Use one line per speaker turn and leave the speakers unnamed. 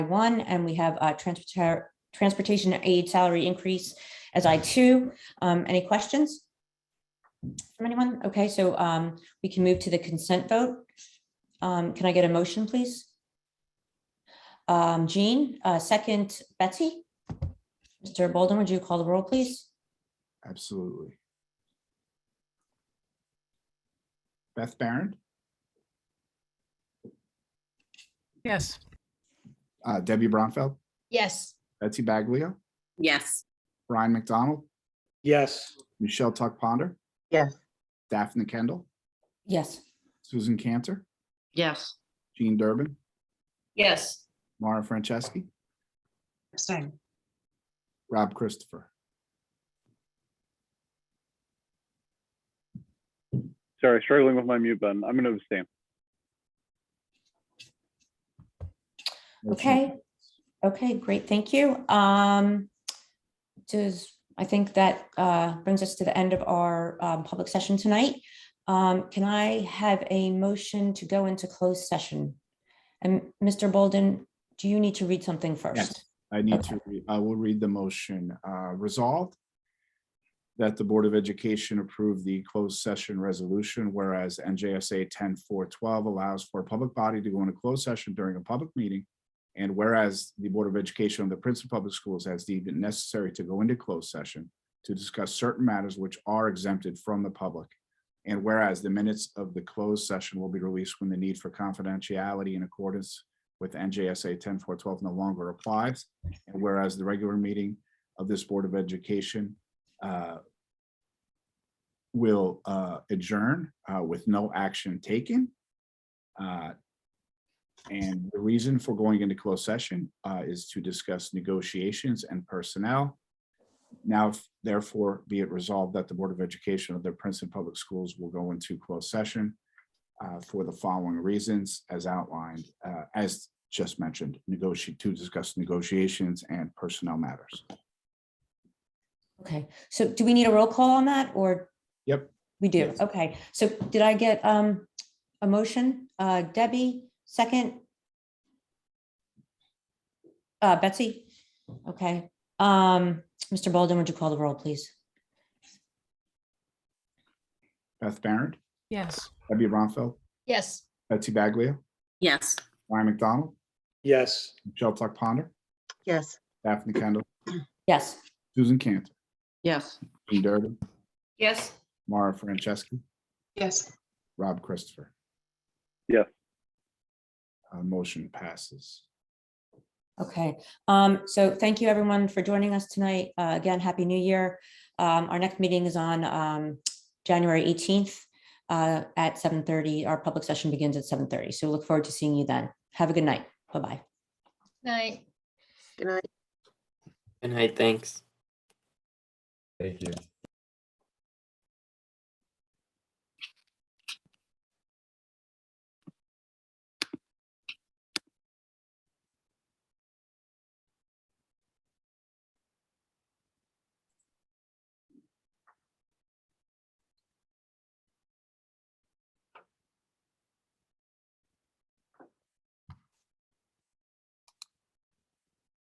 one, and we have uh, transporta- transportation aid salary increase as I two. Um, Any questions? From anyone? Okay, so um, we can move to the consent vote. Um, Can I get a motion, please? Um, Jean, uh, second Betsy. Mr. Bolden, would you call the roll, please?
Absolutely. Beth Baron,
Yes.
uh, Debbie Bronfeld,
Yes.
Betsy Baglia,
Yes.
Brian McDonald,
Yes.
Michelle Tuck Ponder.
Yes.
Daphne Kendall,
Yes.
Susan Cantor,
Yes.
Jean Durbin,
Yes.
Mara Franceschi,
Same.
Rob Christopher.
Sorry, struggling with my mute button. I'm going to abstain.
Motion
Okay. Okay, great, thank you. Um, does, I think that uh brings us to the end of our um public session tonight. Um, can I have a motion to go into closed session? And Mr. Bolden, do you need to read something first?
I need to, re- I will read the motion. Uh, Resolved that the Board of Education approve the closed session resolution, whereas NJSA 10-412 allows for a public body to go into closed session during a public meeting. And whereas the Board of Education of the Princeton Public Schools has deemed it necessary to go into closed session to discuss certain matters which are exempted from the public. And whereas the minutes of the closed session will be released when the need for confidentiality in accordance with NJSA 10-412 no longer applies. And whereas the regular meeting of this Board of Education uh, will uh, adjourn uh, with no action taken. Uh, And the reason for going into closed session uh, is to discuss negotiations and personnel. Now therefore be it resolved that the Board of Education of the Princeton Public Schools will go into closed session uh, for the following reasons as outlined, uh, as just mentioned, negotiate to discuss negotiations and personnel matters.
Okay, so do we need a roll call on that or?
Yep.
We do,
Yes.
okay. So did I get um a motion? Uh Debbie, second? Uh Betsy? Okay. Um Mr. Bolden, would you call the roll, please?
Beth Baron,
Yes.
Debbie Ronfeld,
Yes.
Betsy Baglia,
Yes.
Ryan McDonald,
Yes.
Michelle Tuck Ponder,
Yes.
Daphne Kendall,
Yes,
Susan Cantor,
Yes.
Jean Durbin,
Yes.
Mara Franceschi,
Yes.
Rob Christopher.
Yes.
Uh, Motion passes.
okay. Um so thank you everyone for joining us tonight. Uh again, Happy New Year. Um our next meeting is on um January eighteenth uh at seven thirty. Our public session begins at seven thirty. So we look forward to seeing you then. Have a good night. Bye-bye.
Night.
Good night, thanks.
Thank you.